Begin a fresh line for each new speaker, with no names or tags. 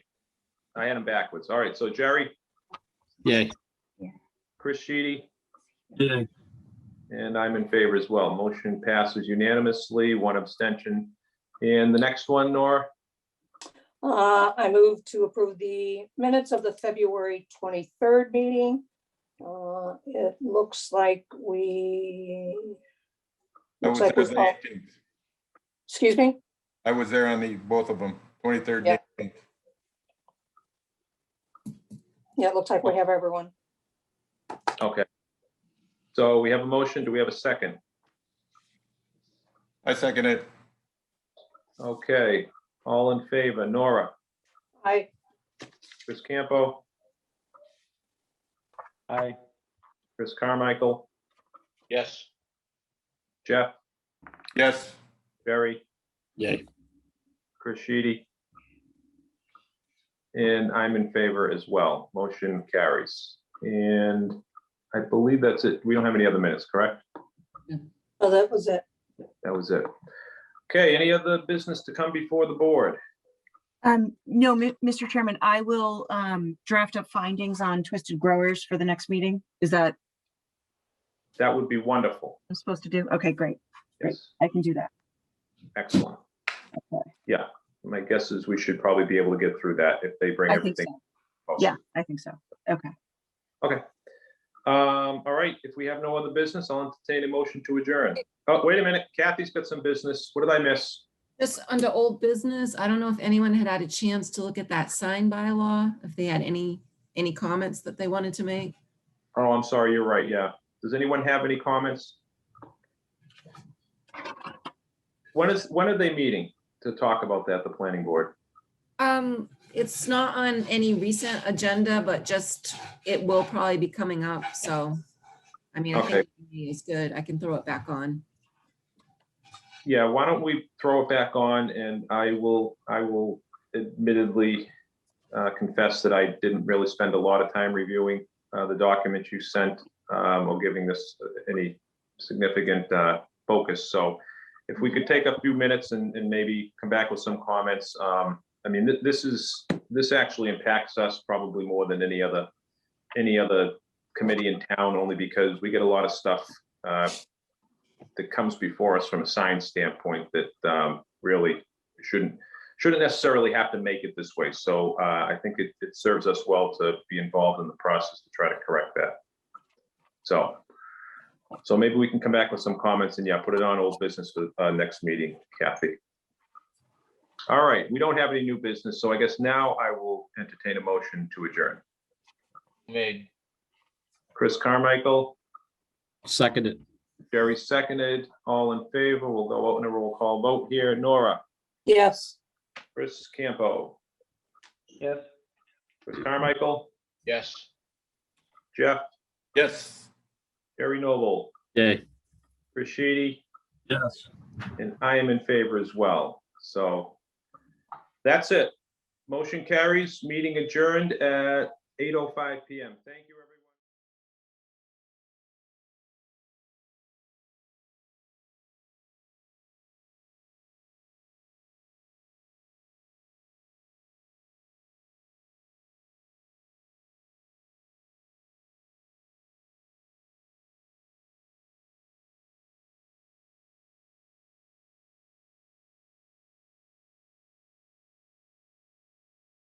I had them backwards. All right, so Jerry,
Yay.
Chris Sheedy,
Yay.
and I'm in favor as well. Motion passes unanimously, one abstention. And the next one, Nora,
Uh, I move to approve the minutes of the February twenty-third meeting. Uh, it looks like we.
I
looks
was
like
there
we
on the
all-
18th.
Excuse me?
I was there on the, both of them, 23rd.
Yeah.
and 18th.
Yeah, it looks like we have everyone.
okay. So we have a motion, do we have a second?
I second it.
Okay, all in favor, Nora,
I,
Chris Campo,
Aye.
Chris Carmichael,
Yes.
Jeff,
Yes,
Jerry,
Yay.
Chris Sheedy. And I'm in favor as well. Motion carries. And I believe that's it. We don't have any other minutes, correct?
oh, that was it.
That was it. Okay, any other business to come before the board?
Um, no, Mi- Mr. Chairman, I will, um, draft up findings on twisted growers for the next meeting. Is that
That would be wonderful.
I'm supposed to do? Okay, great.
Yes,
I can do that.
excellent. Yeah, my guess is we should probably be able to get through that if they bring
I think so.
everything. posted.
Yeah, I think so. Okay.
Um, all right, if we have no other business, I'll entertain a motion to adjourn. Oh, wait a minute, Kathy's got some business. What did I miss?
Just under old business, I don't know if anyone had had a chance to look at that sign bylaw, if they had any, any comments that they wanted to make.
Oh, I'm sorry, you're right, yeah. Does anyone have any comments? When is, when are they meeting to talk about that, the planning board?
Um, it's not on any recent agenda, but just, it will probably be coming up, so. I mean, I think it's good. I can throw it back on.
Yeah, why don't we throw it back on and I will, I will admittedly uh, confess that I didn't really spend a lot of time reviewing uh, the document you sent um, or giving this uh, any significant uh, focus. So if we could take a few minutes and, and maybe come back with some comments. um, I mean, thi- this is, this actually impacts us probably more than any other, any other committee in town, only because we get a lot of stuff uh, that comes before us from a science standpoint that um, really shouldn't, shouldn't necessarily have to make it this way. So uh, I think it, it serves us well to be involved in the process to try to correct that. So, so maybe we can come back with some comments and yeah, put it on old business for uh, next meeting, Kathy. All right, we don't have any new business, so I guess now I will entertain a motion to adjourn.
Made.
Chris Carmichael,
Seconded.
Jerry seconded, all in favor. We'll go out in a roll call vote here. Nora?
Yes.
Chris Campo,
Yes.
Chris Carmichael,
Yes.
Jeff,
yes.
Jerry Noble,
Yay.
Chris Sheedy,
Yes.
and I am in favor as well. So oh that's it. Motion carries, meeting adjourned at 8:05 PM. Thank you, everyone.